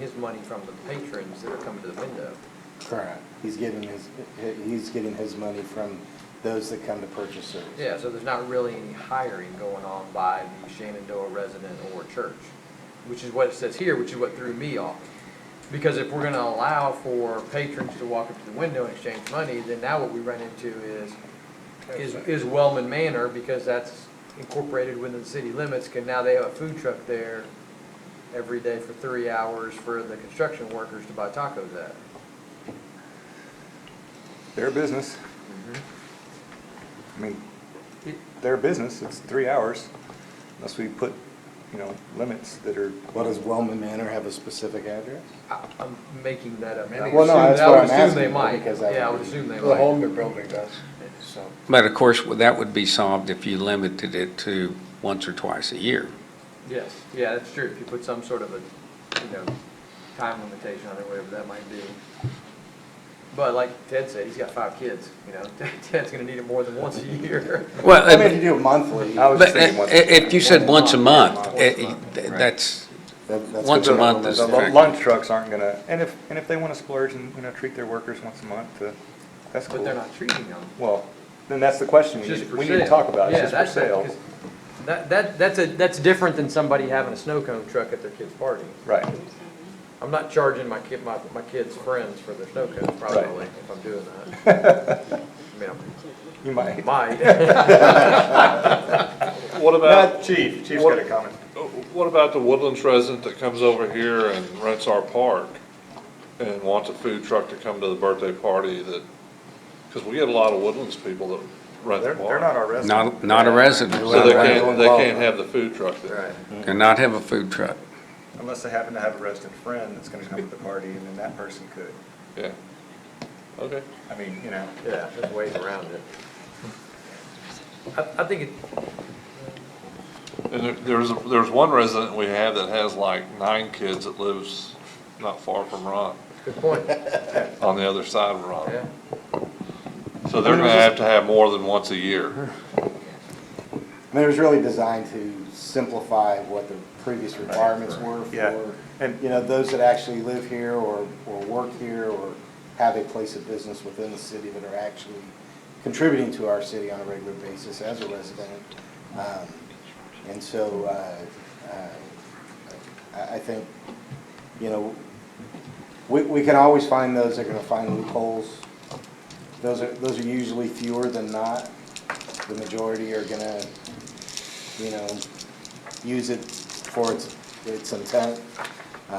his money from the patrons that are coming to the window. Correct. He's getting his, he's getting his money from those that come to purchase service. Yeah, so there's not really any hiring going on by the Shenandoah resident or church, which is what it says here, which is what threw me off. Because if we're gonna allow for patrons to walk up to the window and exchange money, then now what we run into is, is, is Wellman Manor, because that's incorporated within the city limits, can now they have a food truck there every day for three hours for the construction workers to buy tacos at. Their business. I mean, their business, it's three hours, unless we put, you know, limits that are. Well, does Wellman Manor have a specific address? I- I'm making that up. I would Well, no, assume- that's I what would I'm assume they asking, might. because that Yeah, I would would be- assume they The might. Holmby building does, so. But of course, that would be solved if you limited it to once or twice a year. Yes, yeah, that's true. If you put some sort of a, you know, time limitation on it, whatever that might be. But like Ted said, he's got five kids, you know, Ted's gonna need it more than once a year. Well, I mean, you do it monthly. but i- if you said once a month, it- it- that's, That- that's once a what the- month is the- effective. Lunch trucks aren't gonna, and if, and if they wanna splurge and, you know, treat their workers once a month, uh, that's But cool. they're not treating them. Well, then that's the question, It's we just need, for we need to sale. talk about, Yeah, it's just that's for sale. 'cause That, that, that's a, that's different than somebody having a snow cone truck at their kid's party. Right, I'm not charging my kid, my, my kid's friends for their snow cones probably if I'm doing that. I mean, you I might. might. What Not about, uh, chief, chief's got a comment. what about the Woodlands resident that comes over here and rents our park and wants a food truck to come to the birthday party that, because we get a lot of Woodlands people that rent They're, the they're not park. our resident. not, not a resident. So they Right. can't, they can't have the food truck there. Right. And not have a food truck. Unless they happen to have a resident friend that's gonna come to the party, and then that person could. Yeah. Okay. I mean, you know. Yeah, there's ways around it. I, I think it, And there- there's, there's one resident we have that has like nine kids that lives not far from Ron, good point, on the other side of yeah. Ron. So they're gonna have to have more than once a year. I mean, it was really designed to simplify what the previous requirements were Yeah. for, And- you know, those that actually live here or, or work here or have a place of business within the city that are actually contributing to our city on a regular basis as a resident. Um, And so, uh, uh, I, I think, you know, we, we can always find those that are gonna find loopholes. Those are, those are usually fewer than not. The majority are gonna, you know, use it for its, its intent. Um,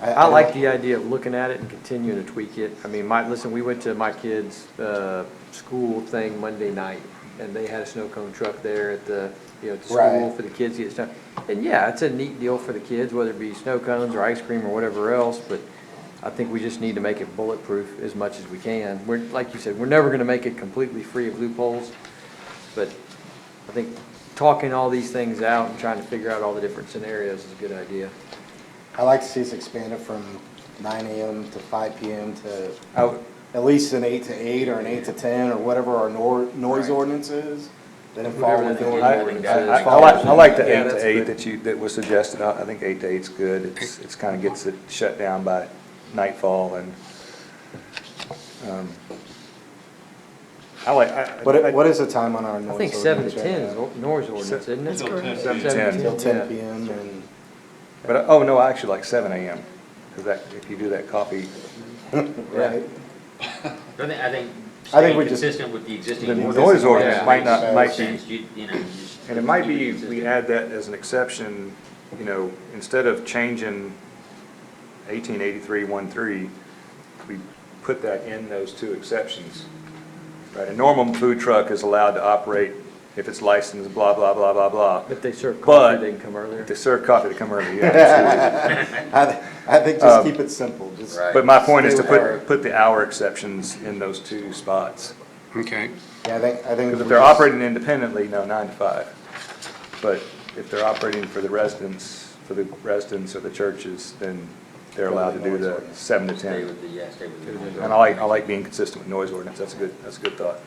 I like the idea of looking at it and continuing to tweak it. I mean, my, listen, we went to my kids' uh, school thing Monday night, and they had a snow cone truck there at the, you know, at the school Right. for the kids to get snow. And yeah, it's a neat deal for the kids, whether it be snow cones or ice cream or whatever else, but I think we just need to make it bulletproof as much as we can. We're, like you said, we're never gonna make it completely free of loopholes, but I think talking all these things out and trying to figure out all the different scenarios is a good idea. I like to see us expanded from nine AM to five PM to I would- at least an eight to eight or an eight to ten or whatever our nor, noise ordinance is. Then it fall Whatever within. the noise I, I- ordinance I- I is. like, I like Yeah, the eight that's to eight good. that you, that was suggested, I, I think eight to eight's good, it's, it's kinda gets it shut down by nightfall and, um, I like, I. What, I- i- what is the time on our noise I think ordinance? seven to right ten is now? or- noise ordinance, isn't it? Seven to 10. Until ten yeah. PM and, But, I- oh, no, I actually like seven AM, cause that, if you do that coffee, right? I think, I think I think staying we just- consistent with the existing the ordinance. noise Yeah. ordinance might not, might makes be, sense. You- you know, you just and it might keep be, we consistent. add that as an exception, you know, instead of changing eighteen eighty-three one three, we put that in those two exceptions. Right, a normal food truck is allowed to operate if it's licensed, blah, blah, blah, blah, blah. If they serve But- coffee, they can come earlier. If they serve coffee to come early, yeah, absolutely. Um, I, I think just keep it simple, just. But my point is to Stay with our- put, put the hour exceptions in those two spots. Okay. Yeah, I think, I think. Because if we they're just- operating independently, no, nine to five. But if they're operating for the residents, for the residents or the churches, then they're allowed to do the seven to Stay ten. with the, yeah, stay with the. And I like, I like being consistent with noise ordinance, that's a good, that's a good thought.